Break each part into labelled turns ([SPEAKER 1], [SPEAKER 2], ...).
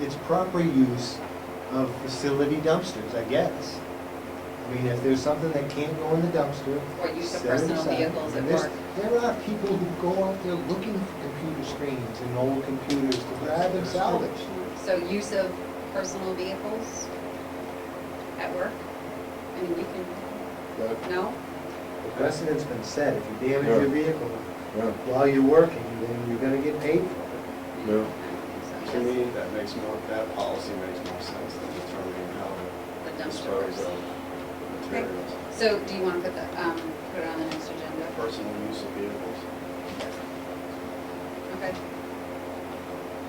[SPEAKER 1] it's proper use of facility dumpsters, I guess. I mean, if there's something that can't go in the dumpster.
[SPEAKER 2] for use of
[SPEAKER 1] set it
[SPEAKER 2] personal
[SPEAKER 1] aside.
[SPEAKER 2] vehicles at
[SPEAKER 1] And there's-
[SPEAKER 2] work.
[SPEAKER 1] There are people who go out there looking for computer screens and old computers to grab and salvage.
[SPEAKER 2] So use of personal vehicles at work? I mean, you can,
[SPEAKER 3] That,
[SPEAKER 2] no?
[SPEAKER 1] The precedent's been set, if you damage your vehicle
[SPEAKER 3] yeah,
[SPEAKER 1] while you're working, then you're gonna get paid for
[SPEAKER 2] I
[SPEAKER 3] No.
[SPEAKER 2] don't
[SPEAKER 4] To
[SPEAKER 2] think
[SPEAKER 4] me, that makes more, that policy makes more sense than determining
[SPEAKER 2] so,
[SPEAKER 4] how
[SPEAKER 2] yes,
[SPEAKER 4] to
[SPEAKER 2] The dumpsters.
[SPEAKER 4] dispose of
[SPEAKER 2] Okay.
[SPEAKER 4] materials.
[SPEAKER 2] So do you want to put the, um, put it on the next agenda?
[SPEAKER 4] Personal use of vehicles.
[SPEAKER 2] Okay.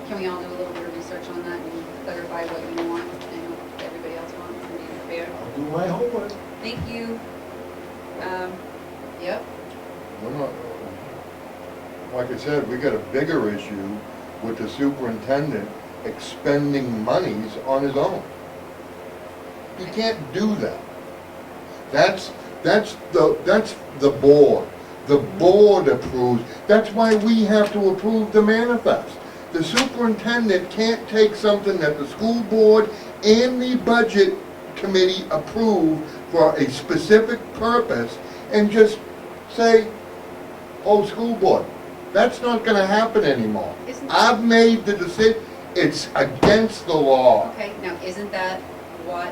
[SPEAKER 2] Can we all do a little bit of research on that and clarify what you want and what everybody else wants and be
[SPEAKER 1] it.
[SPEAKER 2] prepared?
[SPEAKER 1] I'll do my homework.
[SPEAKER 2] Thank you. Um, yep,
[SPEAKER 3] we're not, like I said, we got a bigger issue with the superintendent expending monies on his own. He can't do that. That's, that's the, that's the board. The board approves, that's why we have to approve the manifest. The superintendent can't take something that the school board and the budget committee approve for a specific purpose and just say, oh, school board, that's not gonna happen anymore.
[SPEAKER 2] Isn't-
[SPEAKER 3] I've made the decision, it's against the law.
[SPEAKER 2] okay, now isn't that what,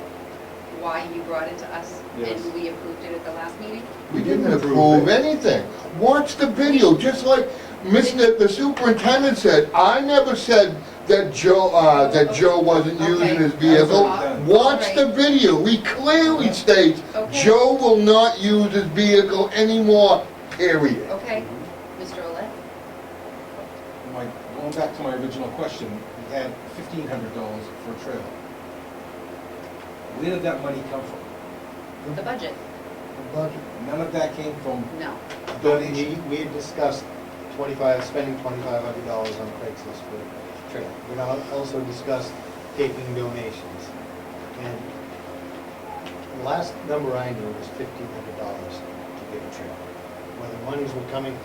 [SPEAKER 2] why you brought it to us?
[SPEAKER 4] Yes.
[SPEAKER 2] And we approved it at the last meeting?
[SPEAKER 3] We didn't approve anything. Watch the video, just like Mr., the superintendent said, I never said that Joe, uh, that Joe wasn't using his
[SPEAKER 2] Okay.
[SPEAKER 3] vehicle.
[SPEAKER 2] Okay.
[SPEAKER 3] Watch the video, he clearly states,
[SPEAKER 2] Okay.
[SPEAKER 3] Joe will not use his vehicle anymore, period.
[SPEAKER 2] Okay, Mr. Olet?
[SPEAKER 5] My, going back to my original question, we had fifteen hundred dollars for a trailer. Where did that money come from?
[SPEAKER 2] The budget?
[SPEAKER 5] None of that came from,
[SPEAKER 2] No.
[SPEAKER 1] But we, we had discussed twenty-five, spending twenty-five hundred dollars on Craigslist for trailer. We al- also discussed taking donations. And the last number I knew was fifteen hundred dollars to get a trailer. Whether monies were coming,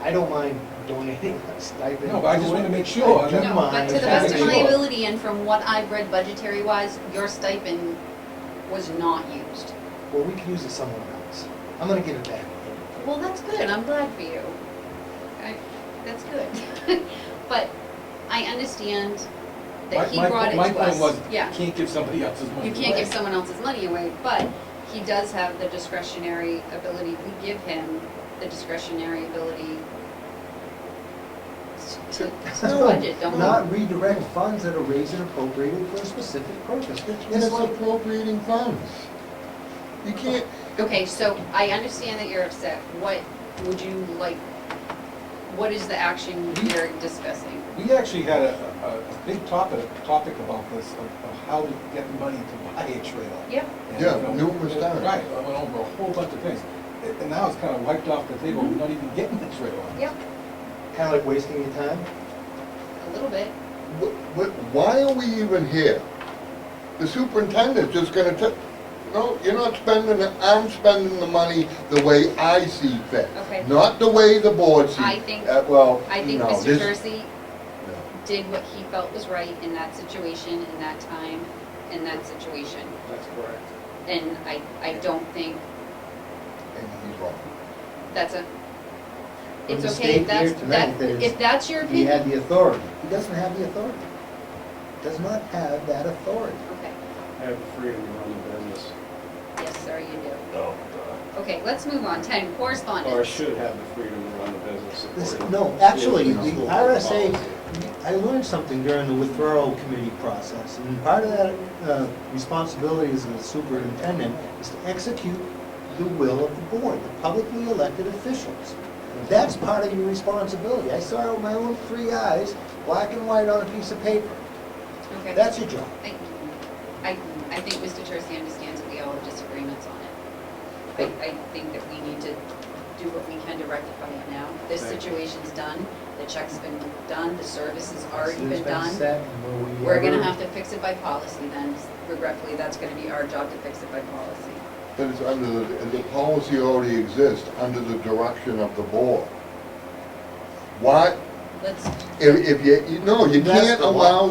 [SPEAKER 1] I don't mind donating a stipend.
[SPEAKER 5] No, but I just wanna make sure
[SPEAKER 1] I do
[SPEAKER 5] that-
[SPEAKER 2] No, but
[SPEAKER 1] mind.
[SPEAKER 2] to the
[SPEAKER 5] Yeah,
[SPEAKER 2] best of
[SPEAKER 5] sure.
[SPEAKER 2] my ability and from what I've read budgetary wise, your stipend was not used.
[SPEAKER 1] Well, we can use it somewhere else. I'm gonna get it back.
[SPEAKER 2] Well, that's good, I'm glad for you. I- That's good. But I understand
[SPEAKER 5] my,
[SPEAKER 2] that he
[SPEAKER 5] my,
[SPEAKER 2] brought it
[SPEAKER 5] point-
[SPEAKER 2] to
[SPEAKER 5] my
[SPEAKER 2] us.
[SPEAKER 5] point was, you
[SPEAKER 2] Yeah,
[SPEAKER 5] can't give somebody else's money
[SPEAKER 2] you can't
[SPEAKER 5] away.
[SPEAKER 2] give someone else's money away, but he does have the discretionary ability, we give him the discretionary ability s- to, to
[SPEAKER 1] No,
[SPEAKER 2] budget, don't we?
[SPEAKER 1] Not redirect funds that are raised and appropriated for a specific purpose. It's
[SPEAKER 3] It's
[SPEAKER 1] like
[SPEAKER 3] appropriating funds. You can't,
[SPEAKER 2] Okay, so I understand that you're upset. What would you like, what is the action you're discussing?
[SPEAKER 5] We actually had a, a, a big topic, topic about this, of, of how to get money to buy a trailer.
[SPEAKER 2] Yeah.
[SPEAKER 5] And,
[SPEAKER 3] Yeah,
[SPEAKER 5] you know,
[SPEAKER 3] numerous
[SPEAKER 5] it-
[SPEAKER 3] times.
[SPEAKER 5] Right, I went over a whole bunch of things, and and now it's kinda wiped off the table, we're not even getting the trailer.
[SPEAKER 2] Yep,
[SPEAKER 1] Kind of like wasting your time?
[SPEAKER 2] a little bit.
[SPEAKER 3] Wh- wh- Why are we even here? The superintendent's just gonna tell, no, you're not spending, it. I'm spending the money the way I see fit.
[SPEAKER 2] Okay.
[SPEAKER 3] Not the way the board sees.
[SPEAKER 2] I think-
[SPEAKER 3] uh, Well,
[SPEAKER 2] I think
[SPEAKER 3] no,
[SPEAKER 2] Mr.
[SPEAKER 3] this-
[SPEAKER 2] Jersey
[SPEAKER 3] no.
[SPEAKER 2] did what he felt was right in that situation, in that time, in that situation.
[SPEAKER 4] That's correct.
[SPEAKER 2] And I, I don't think
[SPEAKER 3] And he's wrong.
[SPEAKER 2] that's a,
[SPEAKER 1] From
[SPEAKER 2] it's
[SPEAKER 1] the
[SPEAKER 2] okay,
[SPEAKER 1] state
[SPEAKER 2] that's,
[SPEAKER 1] here tonight,
[SPEAKER 2] that,
[SPEAKER 1] there's-
[SPEAKER 2] if that's your
[SPEAKER 1] He had
[SPEAKER 2] opinion.
[SPEAKER 1] the authority. He doesn't have the authority. Does not have that authority.
[SPEAKER 2] Okay,
[SPEAKER 4] Have the freedom to run the business,
[SPEAKER 2] yes, sir, you do.
[SPEAKER 4] No.
[SPEAKER 2] Okay, let's move on. Ten,
[SPEAKER 4] or
[SPEAKER 2] correspondence.
[SPEAKER 4] should have the freedom to run the business
[SPEAKER 1] This-
[SPEAKER 4] according.
[SPEAKER 1] no,
[SPEAKER 4] to
[SPEAKER 1] actually,
[SPEAKER 4] school
[SPEAKER 1] the
[SPEAKER 4] board
[SPEAKER 1] RSA
[SPEAKER 4] policy.
[SPEAKER 1] I learned something during the withdrawal committee process, and part of that uh, responsibility as the superintendent is to execute the will of the board, the publicly elected officials. That's part of your responsibility. I saw it with my own three eyes, black and white on a piece of paper.
[SPEAKER 2] Okay.
[SPEAKER 1] That's your job.
[SPEAKER 2] I, I I think Mr. Tursi understands that we all have disagreements on it. I, I think that we need to do what we can to rectify it now. This
[SPEAKER 4] Thank you.
[SPEAKER 2] situation's done, the check's been done, the service has already
[SPEAKER 1] It's
[SPEAKER 2] been done.
[SPEAKER 1] set, and will we
[SPEAKER 2] We're gonna
[SPEAKER 1] ever-
[SPEAKER 2] have to fix it by policy then. Regretfully, that's gonna be our job to fix it by policy.
[SPEAKER 3] But it's under, the the policy already exists, under the direction of the board. Why,
[SPEAKER 2] Let's
[SPEAKER 3] if, if you, you- no, you
[SPEAKER 1] That's
[SPEAKER 3] can't
[SPEAKER 1] the law.
[SPEAKER 3] allow